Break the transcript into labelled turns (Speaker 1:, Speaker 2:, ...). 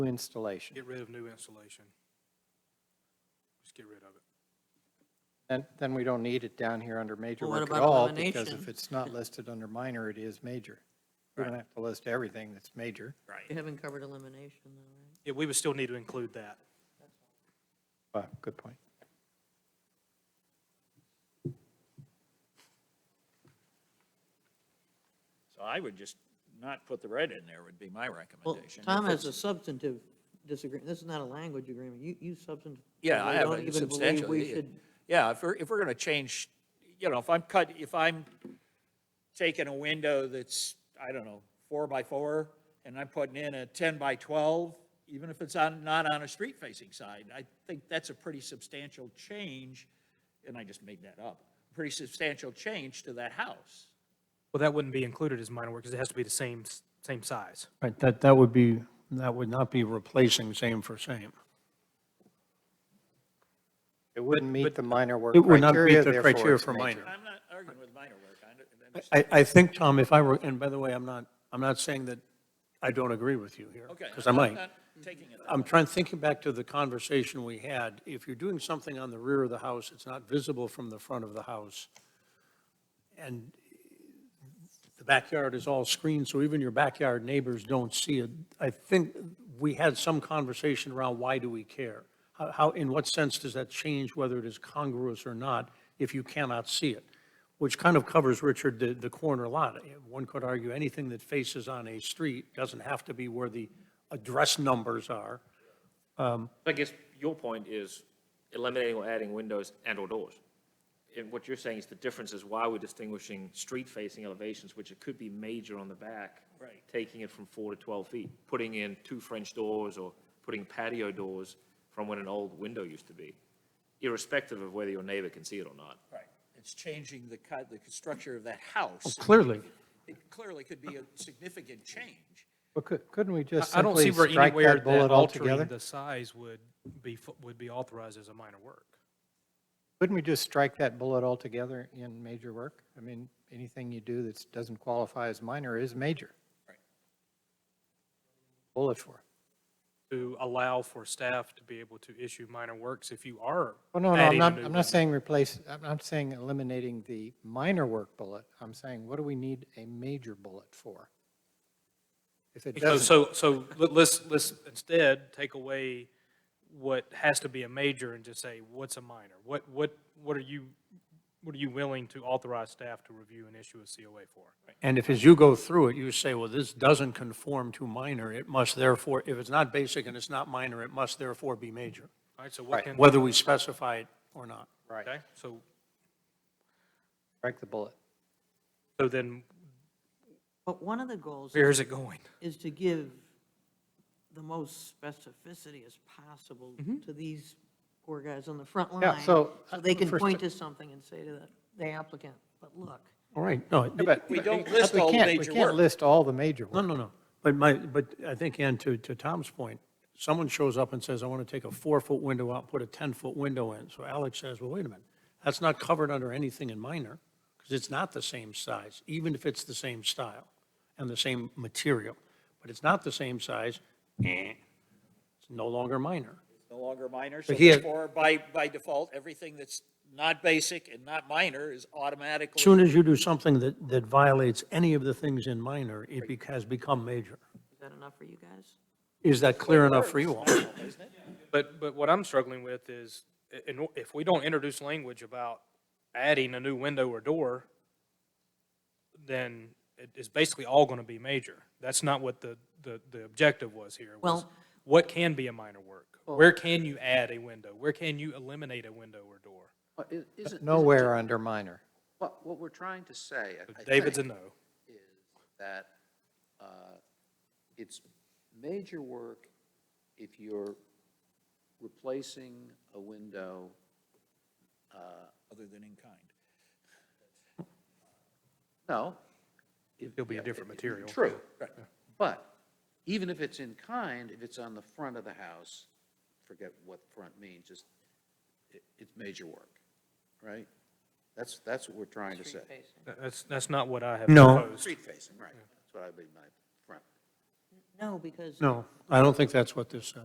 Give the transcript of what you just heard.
Speaker 1: installation.
Speaker 2: Get rid of new installation. Just get rid of it.
Speaker 1: And then we don't need it down here under major
Speaker 3: Well, what
Speaker 1: work at
Speaker 3: about
Speaker 1: all, because if
Speaker 3: elimination?
Speaker 1: it's not listed under minor, it is major. We don't
Speaker 2: Right.
Speaker 1: have to list everything that's major,
Speaker 3: You haven't covered elimination though,
Speaker 2: Yeah, we would still need to include that.
Speaker 1: but good point.
Speaker 4: So I would just not put the red in there would be my
Speaker 3: right? Well,
Speaker 4: recommendation.
Speaker 3: Tom
Speaker 4: If
Speaker 3: has a
Speaker 4: it's-
Speaker 3: substantive disagreement. This is not a language agreement. You, you substantive.
Speaker 4: Yeah, I have
Speaker 3: don't
Speaker 4: a
Speaker 3: even believe
Speaker 4: substantial.
Speaker 3: we should.
Speaker 4: Yeah, if we're, if we're going to change, you know, if I'm cut, if I'm taking a window that's, I don't know, four by four, and I'm putting in a 10 by 12, even if it's on, not on a street facing side, I think that's a pretty substantial change, and I just made that up, pretty substantial change to that house.
Speaker 2: Well, that wouldn't be included as minor work because it has to be the same, s- same size.
Speaker 5: Right, that, that would be, that would not be replacing same for same.
Speaker 1: It wouldn't meet the minor work
Speaker 5: It would not
Speaker 1: criteria,
Speaker 5: meet the
Speaker 1: therefore
Speaker 5: criteria
Speaker 1: it's
Speaker 5: for
Speaker 1: major.
Speaker 5: minor.
Speaker 4: I'm not arguing with minor work, I under- I understand.
Speaker 5: I, I think, Tom, if I were, and by the way, I'm not, I'm not saying that I don't agree with you here.
Speaker 4: Okay.
Speaker 5: Because I
Speaker 4: I'm
Speaker 5: might.
Speaker 4: not Taking it. that
Speaker 5: I'm
Speaker 4: way.
Speaker 5: trying, thinking back to the conversation we had, if you're doing something on the rear of the house, it's not visible from the front of the house, and the backyard is all screened, so even your backyard neighbors don't see it. I think we had some conversation around why do we care? How- How, in what sense does that change whether it is congruous or not if you cannot see it? Which kind of covers, Richard, the, the corner lot. One could argue anything that faces on a street doesn't have to be where the address numbers are.
Speaker 6: I guess your point is eliminating or adding windows and/or doors. And what you're saying is the difference is why we're distinguishing street-facing elevations, which it could be major on the back.
Speaker 4: Right.
Speaker 6: Taking it from four to 12 feet, putting in two French doors or putting patio doors from when an old window used to be, irrespective of whether your neighbor can see it or not.
Speaker 4: Right, it's changing the, cut- the structure of that house.
Speaker 5: Clearly,
Speaker 4: It clearly could be a significant change.
Speaker 1: But cou- couldn't we just
Speaker 2: I I don't see
Speaker 1: simply
Speaker 2: where
Speaker 1: strike
Speaker 2: anywhere
Speaker 1: that
Speaker 2: that
Speaker 1: bullet
Speaker 2: altering
Speaker 1: altogether?
Speaker 2: the size would be, fu- would be authorized as a minor work.
Speaker 1: Couldn't we just strike that bullet altogether in major work? I mean, anything you do that doesn't qualify as minor is major.
Speaker 4: Right.
Speaker 1: Bullet for. it.
Speaker 2: To allow for staff to be able to issue minor works if you are
Speaker 1: Well, Oh, no, no, I'm
Speaker 2: adding a
Speaker 1: not,
Speaker 2: new
Speaker 1: I'm
Speaker 2: window.
Speaker 1: not saying replace, I'm not saying eliminating the minor work bullet. I'm saying, what do we need a major bullet for? If it
Speaker 2: So,
Speaker 1: doesn't,
Speaker 2: so, so let- let's, let's instead take away what has to be a major and just say, what's a minor? What, what, what are you, what are you willing to authorize staff to review and issue a COA for?
Speaker 5: And if as you go through it, you say, well, this doesn't conform to minor, it must therefore, if it's not basic and it's not minor, it must therefore be major,
Speaker 2: All right, so what can,
Speaker 5: whether we specify it or not.
Speaker 1: right,
Speaker 2: okay, so,
Speaker 1: strike the bullet.
Speaker 2: so then
Speaker 3: But one of the goals
Speaker 2: where is it going?
Speaker 3: is to give the most specificity as possible to these poor guys on the front line.
Speaker 1: so, uh,
Speaker 3: they can
Speaker 1: first-
Speaker 3: point to something and say to the- the applicant, but look.
Speaker 5: All right, no,
Speaker 1: But
Speaker 4: We don't
Speaker 1: but
Speaker 4: list
Speaker 1: we
Speaker 4: all
Speaker 1: can't-
Speaker 4: major
Speaker 1: We can't
Speaker 4: work.
Speaker 1: list all the major
Speaker 5: no,
Speaker 1: work.
Speaker 5: no, no. But my, but I think, and to, to Tom's point, someone shows up and says, I want to take a four-foot window out, put a 10-foot window in. So Alex says, well, wait a minute, that's not covered under anything in minor, because it's not the same size, even if it's the same style and the same material. But it's not the same size, eh, it's no longer minor.
Speaker 4: It's No longer minor, so
Speaker 5: But he had-
Speaker 4: therefore, by, by default, everything that's not basic and not minor is automatically.
Speaker 5: As soon as you do something that, that violates any of the things in minor, it bec- has become major.
Speaker 3: Is that enough for you guys?
Speaker 5: Is that clear enough for you all?
Speaker 4: Isn't it?
Speaker 2: But, but what I'm struggling with is, i- in o- if we don't introduce language about adding a new window or door, then it is basically all going to be major. That's not what the, the, the objective was here. was
Speaker 3: Well-
Speaker 2: What can be a minor work? Where can you add a window? Where can you eliminate a window or door?
Speaker 7: Well, i- Isn't, isn't-
Speaker 1: Nowhere under minor.
Speaker 7: what, what we're trying to say, I- I
Speaker 2: David's a
Speaker 7: think,
Speaker 2: no.
Speaker 7: is that uh, it's major work if you're replacing a window uh,
Speaker 4: Other than in kind.
Speaker 7: No.
Speaker 2: It'll be a different material.
Speaker 7: True. But even if it's in kind, if it's on the front of the house, forget what front means, just, it, it's major work, right? That's, that's what we're trying to say.
Speaker 2: That- That's, that's not what I have
Speaker 5: No.
Speaker 2: proposed.
Speaker 7: Street facing, right. That's what I mean by front.
Speaker 3: No, because
Speaker 5: No, I don't think that's what this says.